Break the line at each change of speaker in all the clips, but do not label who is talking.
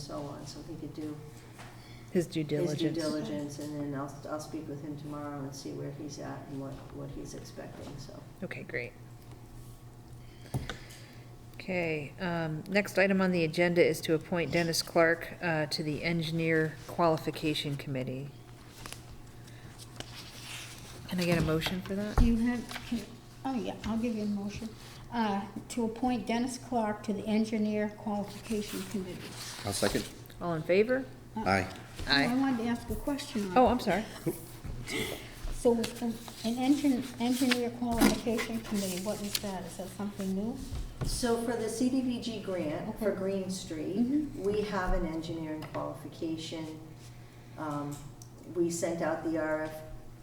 so on, so he could do
His due
his due
diligence.
diligence, and then I'll, I'll speak with him tomorrow and see where he's at and what, what he's expecting, so.
Okay, great. Okay, um, next item on the agenda is to appoint Dennis Clark, uh, to the Engineer Qualification Committee. Can I get a motion for that?
Do you have, can- oh yeah, I'll give you a motion, uh, to appoint Dennis Clark to the Engineer Qualification Committee.
I'll second.
All in favor?
Uh,
Aye.
I
Aye.
wanted to ask a question on.
Oh, I'm sorry.
So with an an engine, Engineer Qualification Committee, what is that? Is that something new?
So for the CDBG grant for
Okay.
Green Street,
Mhm.
we have an engineering qualification. Um, We sent out the RF,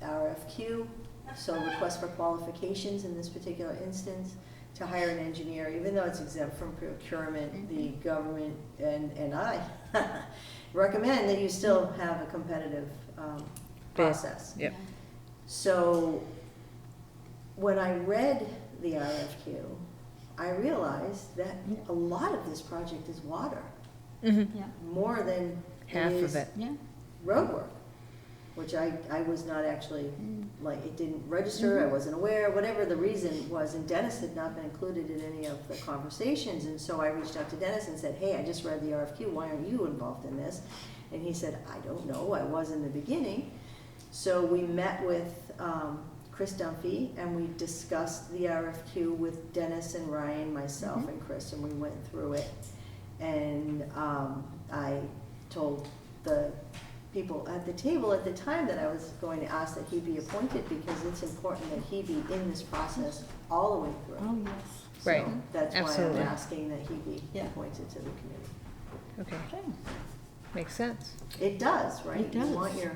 RFQ, so request for qualifications in this particular instance, to hire an engineer, even though it's exempt from procurement, the government and, and I recommend that you still have a competitive um,
Bid.
process.
Yep.
So when I read the RFQ, I realized that a lot of this project is water,
Mhm.
Yeah,
more than
Half of
is
it.
yeah.
roadwork, which I, I was not actually,
Mm.
like, it didn't register, I
Mhm.
wasn't aware, whatever the reason was, and Dennis had not been included in any of the conversations, and so I reached out to Dennis and said, hey, I just read the RFQ, why aren't you involved in this? And he said, I don't know, I was in the beginning. So we met with um, Chris Dunphy and we discussed the RFQ with Dennis and Ryan, myself
Mhm.
and Chris, and we went through it. And um, I told the people at the table at the time that I was going to ask that he be appointed because it's important that he be in this process all the way through.
Oh, yes.
Right.
So That's why I'm
Absolutely.
asking that he be
Yeah.
appointed to the committee.
Okay,
Okay.
makes sense.
It does, right?
It
You
does.
want your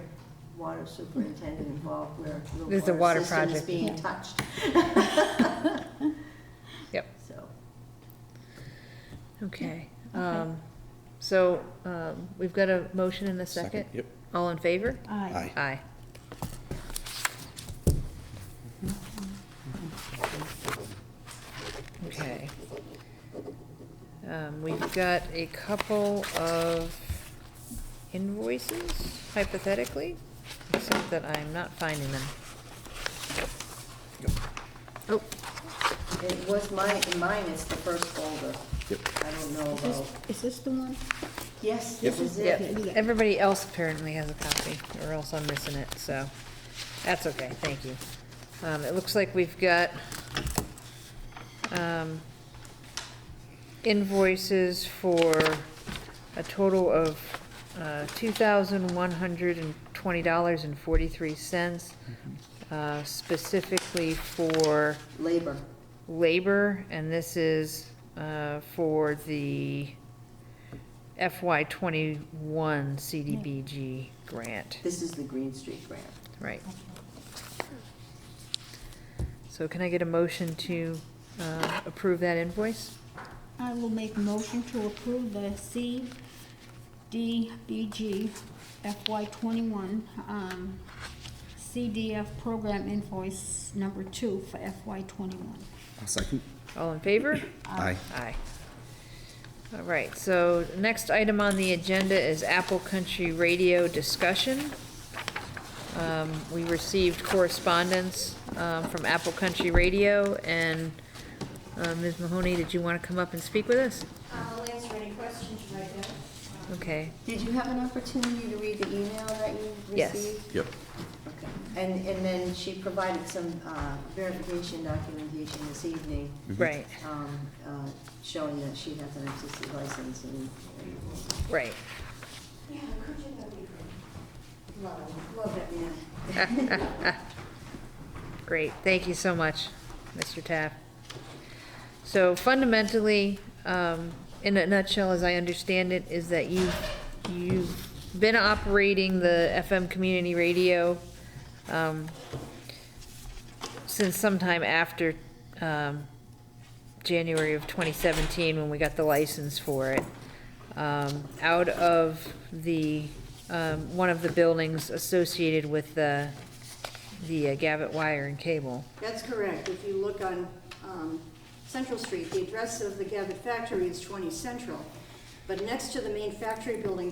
water superintendent involved where
There's the
the
water
water system is
project.
being
Yeah.
touched,
Yep,
so.
okay.
Okay.
Um, so, um, we've got a motion and a second?
Yep.
All in favor?
Aye.
Aye.
Aye. Okay. Um, we've got a couple of invoices hypothetically, except that I'm not finding them. Oh,
It was mine, mine is the first folder.
Yep.
I don't know
Is this,
about,
is this the one?
yes,
Yep.
this is
yeah,
it.
everybody else apparently has a copy, or else I'm missing it, so, that's okay, thank you. Um, it looks like we've got, um, invoices for a total of, uh, two thousand one hundred and twenty dollars and forty-three cents, uh, specifically for
Labor,
labor, and this is, uh, for the FY twenty-one CDBG grant,
this is the Green Street grant.
right? So can I get a motion to, uh, approve that invoice?
I will make a motion to approve the CDBG FY twenty-one, um, CDF program invoice number two for FY twenty-one.
I'll second.
All in favor?
Aye.
Aye. All right, so next item on the agenda is Apple Country Radio discussion. Um, We received correspondence um, from Apple Country Radio, and uh, Ms. Mahoney, did you want to come up and speak with us?
I'll answer any questions right now.
Okay,
Did you have an opportunity to read the email that you
Yes.
received?
Yep.
Okay. And, and then she provided some uh, verification documentation this evening,
right,
um, uh, showing that she has an FCC license and.
right.
Yeah, could you, that'd be great. Love, him. love that man.
Great, thank you so much, Mr. Taft. So fundamentally, um, in a nutshell, as I understand it, is that you, you've been operating the FM community radio um, since sometime after um, January of 2017, when we got the license for it, um, out of the, um, one of the buildings associated with the, the uh, Gavitt wire and cable.
That's correct. If you look on um, Central Street, the address of the Gavitt factory is 20 Central,
But next to the main factory building